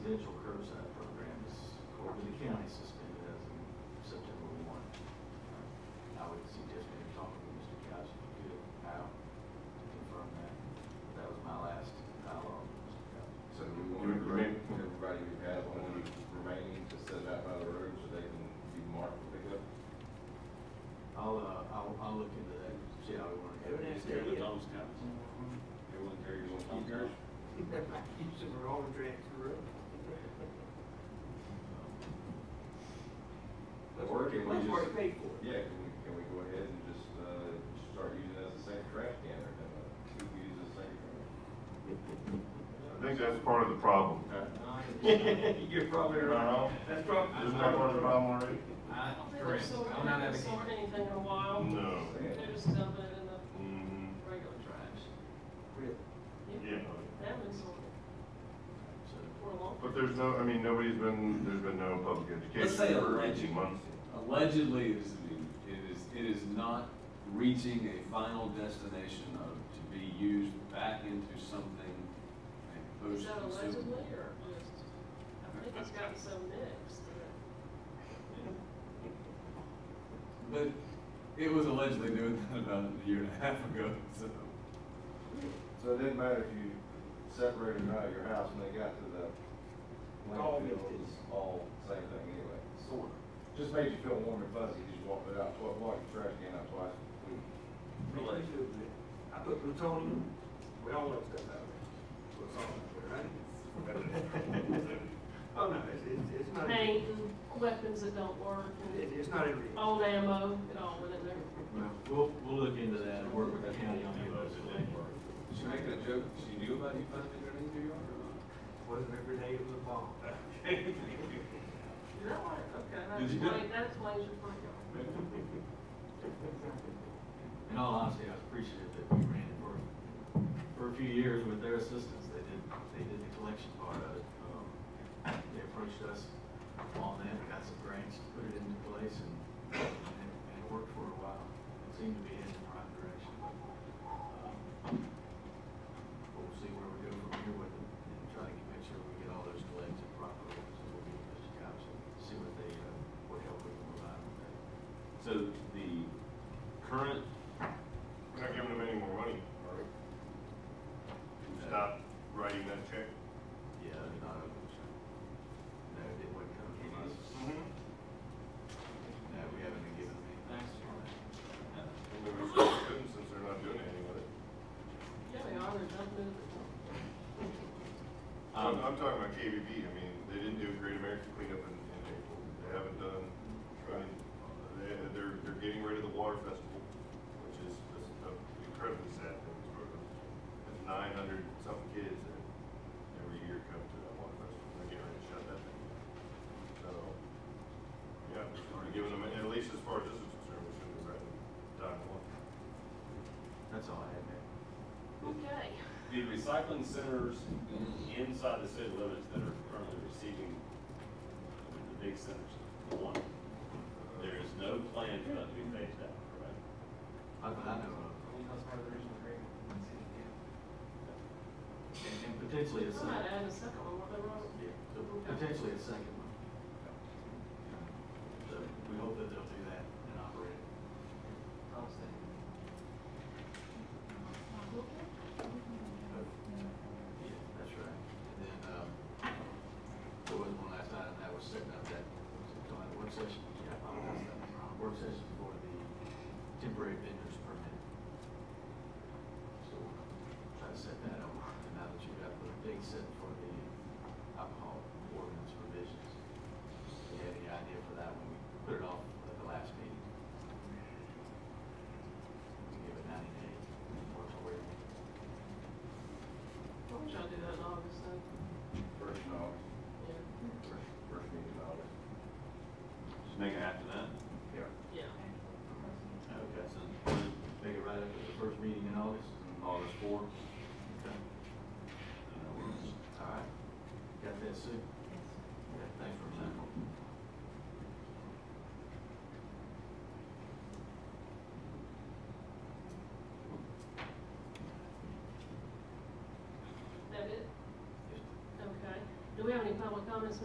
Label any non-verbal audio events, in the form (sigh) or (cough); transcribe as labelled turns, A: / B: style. A: Mark will pick up.
B: I'll, uh, I'll, I'll look into that, see how we wanna
C: It would
B: handle it.
C: have to
A: Carry
C: be
A: the
C: a-
A: Tom's towns. Everyone carry your own Tom's towns.
C: Using the roller tracks for real. That's
A: Or
C: what-
A: can we
C: That's what
A: just-
C: it paid for.
A: Yeah, can we, can we go ahead and just, uh, start using it as a second trash can or, uh, two, we use it as a second trash?
D: I think that's part of the problem.
B: (laughs)
C: You're probably right. That's probably.
D: Isn't that part of the problem already?
E: I don't think
F: Correct.
E: so.
F: I'm
E: We
F: not
E: haven't
F: advocating.
E: sorted anything in a while.
D: No.
E: They're just dumping it in the
D: Mm-hmm.
E: regular trash.
C: Really?
D: Yeah.
E: They haven't been sorted
B: So,
E: for a long.
D: But there's no, I mean, nobody's been, there's been no public
F: Let's say
D: education for
F: alleged.
D: eighteen months.
F: Allegedly, it is, it is, it is not reaching a final destination of, to be used back into something. a
E: Is that
F: post-
E: allegedly or just, I think it's gotten so mixed that
F: But it was allegedly doing that about a year and a half ago, so.
A: So it didn't matter if you separated them out of your house when they got to the landfill,
C: All mixed
A: it was all same thing anyway.
C: Sort of.
A: Just made you feel warm and fuzzy, 'cause you walked it out, twice, walked your trash can out twice.
C: Really? I put plutonium, we all know stuff out there. What's on there, right? Oh, no, it's, it's, it's not, it,
E: paint and weapons that don't work and
C: it's not every.
E: old ammo, it all went in there.
B: well, We'll, we'll look into that and work with the county on those.
F: Did she make that joke? She knew about you finding it underneath your yard or
C: Wasn't every day it was a bomb.
E: Is that why, okay, that
F: Did you do it?
E: explains, that explains your front yard.
B: In all honesty, I was appreciative that we ran it for, for a few years with their assistance. They did, they did the collection part of it. Um, They approached us on that, we got some grants, to put it into place, and, and it and it worked for a while. It seemed to be heading in the right direction. Um, But we'll see where we go from here with it, and try to make sure we get all those collected properly, so we'll be in touch with cops and see what they, uh, what help we can provide with that.
G: So the current,
D: We're not giving them any more money. Stop writing that check.
B: Yeah, they're not open so. No, it wouldn't come from us.
D: Mm-hmm.
B: No, we haven't been given any. Thanks,
D: Maybe we should have them since they're not doing anything with it.
E: Yeah, they are, they're dumping it at the dump.
D: I'm, I'm talking about KBB, I mean, they didn't do a Great American cleanup in, in April, they haven't done, I mean, they, they're, they're getting rid of the water festival, which is just an incredibly sad thing, there's nine hundred something kids that every year come to that water festival, they're getting ready to shut that thing down. So, yeah, we're giving them, at least as far as this is concerned, we shouldn't have let them die in one.
B: That's all I had, man.
E: Okay,
G: the recycling centers inside the city limits that are currently receiving I mean, the big centers, the one, there is no plan for that to be phased out, correct?
B: I, I know of. And, and potentially a
E: I might
B: second.
E: add a second one, what they wrote.
B: Yeah, so potentially a second one. So we hope that they'll do that and operate it. Yeah, that's right. And then, um, there was one last item that was setting up that, was it called a work session? Yeah, I apologize, that was wrong. Work session for the temporary vendors permit. So we'll try to set that up, and now that you've got the date set for the alcohol ordinance provisions. If you had any idea for that one, we put it off at the last meeting. We give it ninety days, moratorium.
E: Why don't y'all do that in August, though?
A: First in August,
E: Yeah,
A: first, first meeting in August.
G: Just make it after that.
A: Yeah.
E: yeah.
B: Okay, so make it right after the first meeting in August?
G: August fourth.
B: Okay. All right. Got that, Sue? Yes. Thanks for example.
E: That it? Okay. Do we have any public comments,